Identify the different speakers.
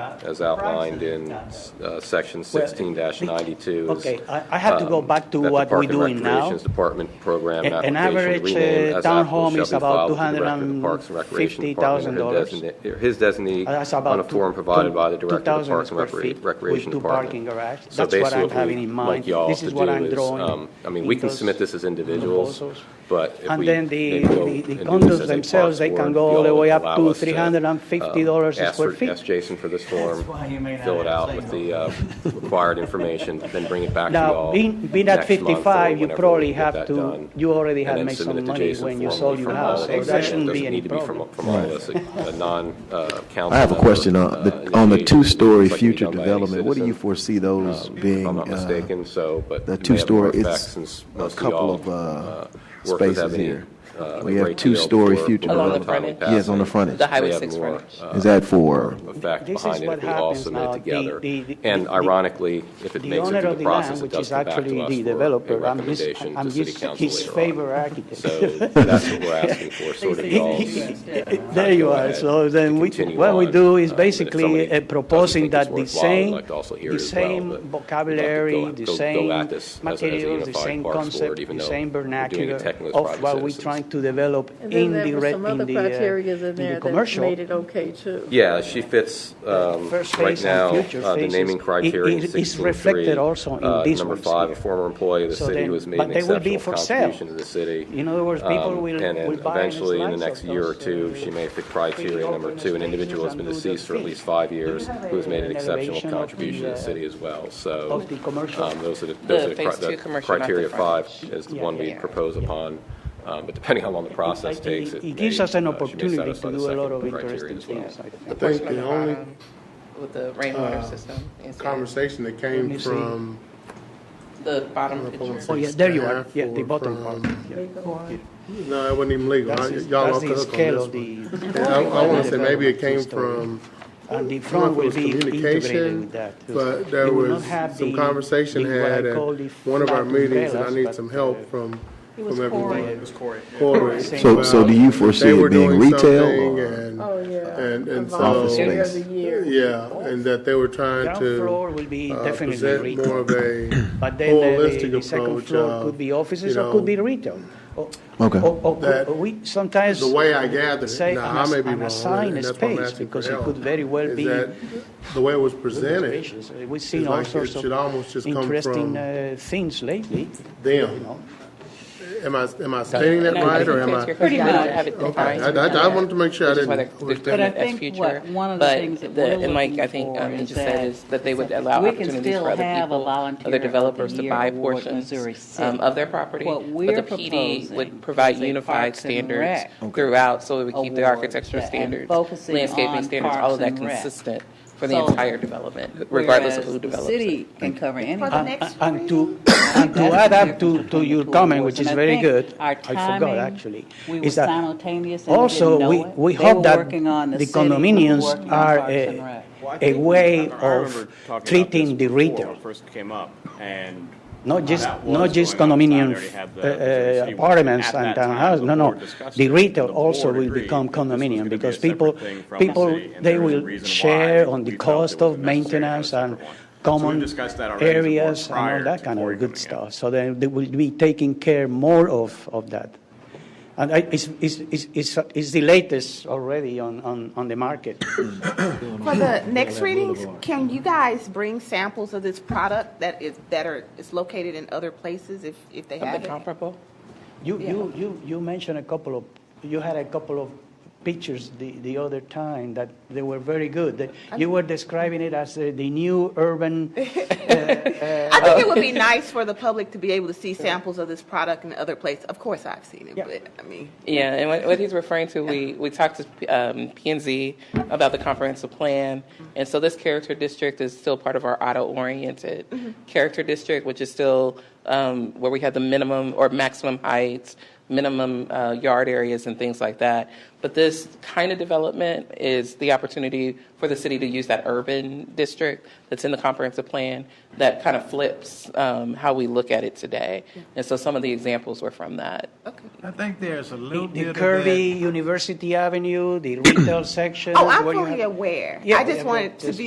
Speaker 1: as outlined in uh, Section 16-92. is,
Speaker 2: Okay, I- I have to go
Speaker 1: um,
Speaker 2: back to
Speaker 1: that the
Speaker 2: what
Speaker 1: Park
Speaker 2: we
Speaker 1: and
Speaker 2: doing now.
Speaker 1: Recreations Department program
Speaker 2: A- an
Speaker 1: application
Speaker 2: average,
Speaker 1: renamed
Speaker 2: uh,
Speaker 1: as
Speaker 2: townhome
Speaker 1: applicable shall
Speaker 2: is
Speaker 1: be
Speaker 2: about
Speaker 1: filed with the Director of the Parks and Recreation Department or
Speaker 2: $250,000.
Speaker 1: designate- or His
Speaker 2: Uh, That's
Speaker 1: designee
Speaker 2: about
Speaker 1: on a
Speaker 2: two-
Speaker 1: form provided by the
Speaker 2: two-
Speaker 1: Director of the
Speaker 2: 2,000
Speaker 1: Parks and
Speaker 2: square
Speaker 1: Recre-
Speaker 2: feet
Speaker 1: Recreation
Speaker 2: with two
Speaker 1: Department.
Speaker 2: parking garage.
Speaker 1: So
Speaker 2: That's what
Speaker 1: basically
Speaker 2: I'm
Speaker 1: what
Speaker 2: having
Speaker 1: we'd
Speaker 2: in
Speaker 1: like
Speaker 2: mind.
Speaker 1: y'all
Speaker 2: This
Speaker 1: to
Speaker 2: is what
Speaker 1: do
Speaker 2: I'm
Speaker 1: is,
Speaker 2: drawing.
Speaker 1: um, I mean, we can
Speaker 2: in those
Speaker 1: submit this as individuals,
Speaker 2: proposals.
Speaker 1: but if
Speaker 2: And
Speaker 1: we.
Speaker 2: then the,
Speaker 1: go
Speaker 2: the-
Speaker 1: and
Speaker 2: the
Speaker 1: do this as a
Speaker 2: condos
Speaker 1: Parks
Speaker 2: themselves, they
Speaker 1: Board,
Speaker 2: can go all
Speaker 1: y'all
Speaker 2: the way up
Speaker 1: allow
Speaker 2: to
Speaker 1: us um,
Speaker 2: three hundred and fifty dollars a
Speaker 1: ask
Speaker 2: square
Speaker 1: for-
Speaker 2: feet.
Speaker 1: Ask Jason for this form,
Speaker 3: That's why you may not
Speaker 1: fill it
Speaker 3: have
Speaker 1: out
Speaker 3: to
Speaker 1: with
Speaker 3: say
Speaker 1: the uh, required information, then bring it back to
Speaker 2: Now,
Speaker 1: y'all
Speaker 2: being, being at
Speaker 1: next month or
Speaker 2: fifty-five, you
Speaker 1: whenever we
Speaker 2: probably
Speaker 1: get
Speaker 2: have
Speaker 1: that
Speaker 2: to,
Speaker 1: done,
Speaker 2: you already
Speaker 1: and
Speaker 2: have
Speaker 1: then
Speaker 2: made
Speaker 1: submit it
Speaker 2: some
Speaker 1: to
Speaker 2: money
Speaker 1: Jason
Speaker 2: when you
Speaker 1: formally
Speaker 2: sold your
Speaker 1: from all
Speaker 2: house,
Speaker 1: of
Speaker 2: so
Speaker 1: us.
Speaker 2: that
Speaker 1: It
Speaker 2: shouldn't be
Speaker 1: doesn't
Speaker 2: any
Speaker 1: need to be from-
Speaker 2: problem.
Speaker 1: From all of us, a a non, uh, council.
Speaker 4: I have a
Speaker 1: member,
Speaker 4: question
Speaker 1: uh,
Speaker 4: on
Speaker 1: initiated,
Speaker 4: the, on the two-story
Speaker 1: like it'd be
Speaker 4: future
Speaker 1: done by any
Speaker 4: development. What do you
Speaker 1: citizen,
Speaker 4: foresee those being?
Speaker 1: Um, If I'm not
Speaker 4: uh,
Speaker 1: mistaken, so, but. it
Speaker 4: The
Speaker 1: may have
Speaker 4: two-story,
Speaker 1: more effect
Speaker 4: it's
Speaker 1: since
Speaker 4: a
Speaker 1: mostly
Speaker 4: couple
Speaker 1: y'all,
Speaker 4: of uh,
Speaker 1: uh, workers
Speaker 4: spaces
Speaker 1: have any,
Speaker 4: here.
Speaker 1: uh,
Speaker 4: We
Speaker 1: a
Speaker 4: have
Speaker 1: great deal
Speaker 4: two-story
Speaker 1: for
Speaker 4: future
Speaker 5: Along the
Speaker 4: development.
Speaker 5: frontage?
Speaker 4: Yes, on the frontage.
Speaker 5: The highway
Speaker 1: They have
Speaker 5: six
Speaker 1: more,
Speaker 5: frontage.
Speaker 1: uh,
Speaker 4: Is that for,
Speaker 1: effect
Speaker 2: This is
Speaker 1: behind it
Speaker 2: what
Speaker 1: if we all
Speaker 2: happens
Speaker 1: submit
Speaker 2: now.
Speaker 1: it
Speaker 2: The-
Speaker 1: together.
Speaker 2: the- the-
Speaker 1: And
Speaker 2: the-
Speaker 1: ironically, if it
Speaker 2: The
Speaker 1: makes it
Speaker 2: owner
Speaker 1: through
Speaker 2: of the
Speaker 1: the process,
Speaker 2: land,
Speaker 1: it
Speaker 2: which
Speaker 1: does
Speaker 2: is
Speaker 1: come back to
Speaker 2: actually
Speaker 1: us
Speaker 2: the
Speaker 1: for a
Speaker 2: developer, I'm his,
Speaker 1: recommendation
Speaker 2: I'm
Speaker 1: to city
Speaker 2: his,
Speaker 1: council
Speaker 2: his
Speaker 1: later
Speaker 2: favor
Speaker 1: on.
Speaker 2: architect.
Speaker 1: So that's what we're asking for, sort of
Speaker 2: He-
Speaker 1: y'all's.
Speaker 2: he- There you
Speaker 1: Go
Speaker 2: are,
Speaker 1: ahead.
Speaker 2: so then we,
Speaker 1: Continue
Speaker 2: what we
Speaker 1: on.
Speaker 2: do is
Speaker 1: Uh, but if somebody
Speaker 2: basically uh,
Speaker 1: doesn't
Speaker 2: proposing
Speaker 1: think it's
Speaker 2: that the
Speaker 1: worthwhile, I'd
Speaker 2: same,
Speaker 1: like to also hear
Speaker 2: the
Speaker 1: it as well, but
Speaker 2: same
Speaker 1: we'd like to go-
Speaker 2: vocabulary, the
Speaker 1: go- go
Speaker 2: same
Speaker 1: at this as a- as a
Speaker 2: materials, the
Speaker 1: unified
Speaker 2: same
Speaker 1: Parks Board,
Speaker 2: concept,
Speaker 1: even
Speaker 2: the
Speaker 1: though
Speaker 2: same
Speaker 1: we're doing it
Speaker 2: vernacular
Speaker 1: technically as
Speaker 2: of
Speaker 1: private
Speaker 2: what we're
Speaker 1: citizens.
Speaker 2: trying to develop
Speaker 6: And
Speaker 2: in
Speaker 6: then
Speaker 2: the,
Speaker 6: there were
Speaker 2: re-
Speaker 6: some
Speaker 2: in
Speaker 6: other
Speaker 2: the,
Speaker 6: criterias in
Speaker 2: uh, in the
Speaker 6: there that
Speaker 2: commercial.
Speaker 6: made it okay too.
Speaker 1: Yeah, she fits, um,
Speaker 2: First
Speaker 1: right
Speaker 2: phase and
Speaker 1: now,
Speaker 2: future
Speaker 1: uh, the
Speaker 2: phases.
Speaker 1: naming
Speaker 2: It-
Speaker 1: criteria in
Speaker 2: it- it's
Speaker 1: 16.3.
Speaker 2: reflected also in
Speaker 1: uh,
Speaker 2: these
Speaker 1: Number
Speaker 2: ones
Speaker 1: five, a
Speaker 2: here.
Speaker 1: former employee of the
Speaker 2: So
Speaker 1: city
Speaker 2: then-
Speaker 1: who has made
Speaker 2: but
Speaker 1: an
Speaker 2: they will be
Speaker 1: exceptional
Speaker 2: for sale.
Speaker 1: contribution to the city.
Speaker 2: In other words, people
Speaker 1: Um,
Speaker 2: will-
Speaker 1: and then
Speaker 2: will buy
Speaker 1: Eventually, in the
Speaker 2: slice
Speaker 1: next
Speaker 2: of
Speaker 1: year or
Speaker 2: those,
Speaker 1: two,
Speaker 2: uh,
Speaker 1: she may fit criteria
Speaker 2: pretty
Speaker 1: number
Speaker 2: open
Speaker 1: two, an
Speaker 2: spaces
Speaker 1: individual who has
Speaker 2: and
Speaker 1: been
Speaker 2: do the
Speaker 1: deceased for at
Speaker 2: fees.
Speaker 1: least five years,
Speaker 2: have
Speaker 1: who has made an
Speaker 2: an
Speaker 1: exceptional
Speaker 2: elevation of
Speaker 1: contribution to
Speaker 2: the,
Speaker 1: the
Speaker 2: uh,
Speaker 1: city as well, so.
Speaker 2: of the commercial?
Speaker 1: um, Those are, the- those
Speaker 5: The
Speaker 1: are the
Speaker 5: phase
Speaker 1: cri- the
Speaker 5: two commercial, not the
Speaker 1: criteria five
Speaker 5: frontage.
Speaker 1: is the
Speaker 2: Yeah,
Speaker 1: one we
Speaker 5: yeah.
Speaker 1: propose upon, um, but depending how long the process
Speaker 2: It-
Speaker 1: takes,
Speaker 2: it-
Speaker 1: it
Speaker 2: It gives
Speaker 1: may,
Speaker 2: us an
Speaker 1: uh, she may
Speaker 2: opportunity
Speaker 1: satisfy
Speaker 2: to
Speaker 1: the
Speaker 2: do a lot
Speaker 1: second
Speaker 2: of
Speaker 1: criteria
Speaker 2: interesting
Speaker 1: as well.
Speaker 2: things, I
Speaker 7: I
Speaker 2: think.
Speaker 7: think the only uh,
Speaker 5: With the rainwater system. is
Speaker 7: conversation that
Speaker 2: Let me
Speaker 7: came
Speaker 2: see.
Speaker 7: from.
Speaker 5: The bottom picture.
Speaker 2: Oh, yeah, there you are,
Speaker 7: Staff
Speaker 2: yeah, the
Speaker 7: or
Speaker 2: bottom
Speaker 7: from-
Speaker 2: part. yeah.
Speaker 7: No, it wasn't even legal.
Speaker 2: That's
Speaker 7: I-
Speaker 2: the-
Speaker 7: Y'all
Speaker 2: that's
Speaker 7: off the
Speaker 2: the
Speaker 7: hook on
Speaker 2: scale
Speaker 7: this
Speaker 2: of
Speaker 7: one.
Speaker 2: the,
Speaker 7: And I, I wanna say maybe it came
Speaker 2: Development story.
Speaker 7: from,
Speaker 2: and the
Speaker 7: some
Speaker 2: front
Speaker 7: of it
Speaker 2: will
Speaker 7: was
Speaker 2: be integrated
Speaker 7: communication,
Speaker 2: with that. too.
Speaker 7: but
Speaker 2: You
Speaker 7: there
Speaker 2: will not
Speaker 7: was
Speaker 2: have
Speaker 7: some
Speaker 2: the-
Speaker 7: conversation
Speaker 2: the- what I
Speaker 7: had at
Speaker 2: call the
Speaker 7: one of our
Speaker 2: flat
Speaker 7: meetings, and I
Speaker 2: umbrellas,
Speaker 7: need
Speaker 2: but,
Speaker 7: some
Speaker 2: uh,
Speaker 7: help from, from everyone.
Speaker 2: It was
Speaker 7: Corey.
Speaker 4: So- so do you foresee
Speaker 7: They were
Speaker 4: it being
Speaker 7: doing
Speaker 4: retail
Speaker 7: something
Speaker 4: or-
Speaker 7: and-
Speaker 6: Oh, yeah.
Speaker 7: And, and so.
Speaker 4: Office
Speaker 6: Every
Speaker 4: space.
Speaker 6: other year.
Speaker 7: Yeah, and that they were trying
Speaker 2: Ground
Speaker 7: to.
Speaker 2: floor will be
Speaker 7: uh,
Speaker 2: definitely
Speaker 7: present More
Speaker 2: retail,
Speaker 7: of a
Speaker 2: but then the- the,
Speaker 7: holistic
Speaker 2: the second
Speaker 7: approach
Speaker 2: floor could be
Speaker 7: of,
Speaker 2: offices
Speaker 7: you
Speaker 2: or could
Speaker 7: know,
Speaker 2: be retail. Oh, Or-
Speaker 4: Okay.
Speaker 2: or- or-
Speaker 7: That-
Speaker 2: or we sometimes
Speaker 7: the way I gathered it.
Speaker 2: say
Speaker 7: Now, I
Speaker 2: an
Speaker 7: may
Speaker 2: ass-
Speaker 7: be
Speaker 2: an
Speaker 7: wrong,
Speaker 2: assigned
Speaker 7: and that's why I'm
Speaker 2: space,
Speaker 7: asking for
Speaker 2: because it
Speaker 7: help.
Speaker 2: could very well
Speaker 7: Is
Speaker 2: be
Speaker 7: that The way it was presented,
Speaker 2: reservations. Uh, We've seen
Speaker 7: It's
Speaker 2: all
Speaker 7: like it
Speaker 2: sorts of
Speaker 7: should almost just come
Speaker 2: interesting
Speaker 7: from
Speaker 2: uh, things lately, you
Speaker 7: them,
Speaker 2: know.
Speaker 7: am I, am I stating that right, or am I?
Speaker 5: Pretty much. have it
Speaker 7: Okay,
Speaker 5: defined.
Speaker 7: I, I- I wanted to make sure I
Speaker 5: Which is why
Speaker 7: didn't.
Speaker 5: they're- they're
Speaker 8: But I
Speaker 5: doing it as
Speaker 8: think
Speaker 5: future.
Speaker 8: what- one of the
Speaker 5: But
Speaker 8: things that
Speaker 5: the-
Speaker 8: we're
Speaker 5: and like, I
Speaker 8: looking
Speaker 5: think,
Speaker 8: for
Speaker 5: um, he
Speaker 8: is
Speaker 5: just said
Speaker 8: that-
Speaker 5: is That they would allow
Speaker 8: we can
Speaker 5: opportunities
Speaker 8: still
Speaker 5: for other
Speaker 8: have a
Speaker 5: people,
Speaker 8: volunteer
Speaker 5: other
Speaker 8: of the
Speaker 5: developers to
Speaker 8: year
Speaker 5: buy
Speaker 8: award in
Speaker 5: portions
Speaker 8: Missouri
Speaker 5: um,
Speaker 8: City.
Speaker 5: of their property.
Speaker 8: What
Speaker 5: But
Speaker 8: we're
Speaker 5: the PD
Speaker 8: proposing
Speaker 5: would provide
Speaker 8: is a
Speaker 5: unified
Speaker 8: Parks and
Speaker 5: standards
Speaker 8: Rec
Speaker 5: throughout, so we would keep the
Speaker 8: award
Speaker 5: architectural
Speaker 8: that- and
Speaker 5: standards,
Speaker 8: focusing
Speaker 5: landscaping
Speaker 8: on
Speaker 5: standards, all of
Speaker 8: Parks
Speaker 5: that
Speaker 8: and Rec.
Speaker 5: consistent for the
Speaker 8: So-
Speaker 5: entire development, regardless of
Speaker 8: Whereas
Speaker 5: who develops
Speaker 8: The
Speaker 5: it.
Speaker 8: city can cover anything.
Speaker 2: And- And to, and to add up to, to your comment, which is very good, I forgot actually, is that also, we, we hope that the condominiums are a, a way of treating the retail,
Speaker 9: First came up and.
Speaker 2: not just,
Speaker 9: Uh, that was
Speaker 2: not just
Speaker 9: going on. I
Speaker 2: condominium
Speaker 9: already had the- the
Speaker 2: uh,
Speaker 9: city-
Speaker 2: apartments
Speaker 9: at
Speaker 2: and
Speaker 9: that time,
Speaker 2: townhouses, no,
Speaker 9: the
Speaker 2: no.
Speaker 9: board discussed
Speaker 2: The
Speaker 9: it,
Speaker 2: retail
Speaker 9: the
Speaker 2: also
Speaker 9: board
Speaker 2: will
Speaker 9: agreed
Speaker 2: become
Speaker 9: that this was gonna
Speaker 2: condominium
Speaker 9: be a
Speaker 2: because
Speaker 9: separate
Speaker 2: people,
Speaker 9: thing from the
Speaker 2: people,
Speaker 9: city, and
Speaker 2: they
Speaker 9: there was a
Speaker 2: will
Speaker 9: reason why
Speaker 2: share on
Speaker 9: we
Speaker 2: the
Speaker 9: felt it
Speaker 2: cost
Speaker 9: was
Speaker 2: of
Speaker 9: necessary to have a
Speaker 2: maintenance and
Speaker 9: separate one. So we
Speaker 2: common
Speaker 9: discussed that already as a board
Speaker 2: areas and all
Speaker 9: prior
Speaker 2: that
Speaker 9: to
Speaker 2: kind
Speaker 9: Cory
Speaker 2: of good
Speaker 9: coming in.
Speaker 2: stuff. So then they will be taking care more of, of that. And I, it's, it's, it's, it's, it's the latest already on, on, on the market.
Speaker 10: For the next readings, can you guys bring samples of this product that is, that are, is located in other places if, if they
Speaker 5: Something
Speaker 10: have it?
Speaker 5: comparable?
Speaker 2: You, you, you, you mentioned a couple of, you had a couple of pictures the, the other time that they were very good. That You were describing it as uh, the, the new urban,
Speaker 10: I think it would be nice for the public to be able to see samples of this product in other places. Of course, I've seen it,
Speaker 2: Yeah.
Speaker 10: but I mean.
Speaker 5: Yeah, and what, what he's referring to, we, we talked to um, PNZ about the comprehensive plan, and so this character district is still part of our auto-oriented character district, which is still um, where we have the minimum or maximum heights, minimum uh, yard areas, and things like that. But this kind of development is the opportunity for the city to use that urban district that's in the comprehensive plan that kind of flips um, how we look at it today. And so some of the examples were from that.
Speaker 10: Okay.
Speaker 3: I think there's a little
Speaker 2: the the
Speaker 3: bit of
Speaker 2: curvy University Avenue, the retail section.
Speaker 10: Oh, I'm
Speaker 2: where you
Speaker 10: fully
Speaker 2: have-
Speaker 10: aware.
Speaker 2: Yeah,
Speaker 10: I
Speaker 2: yeah,
Speaker 10: just
Speaker 2: but
Speaker 10: wanted to
Speaker 2: just-
Speaker 10: be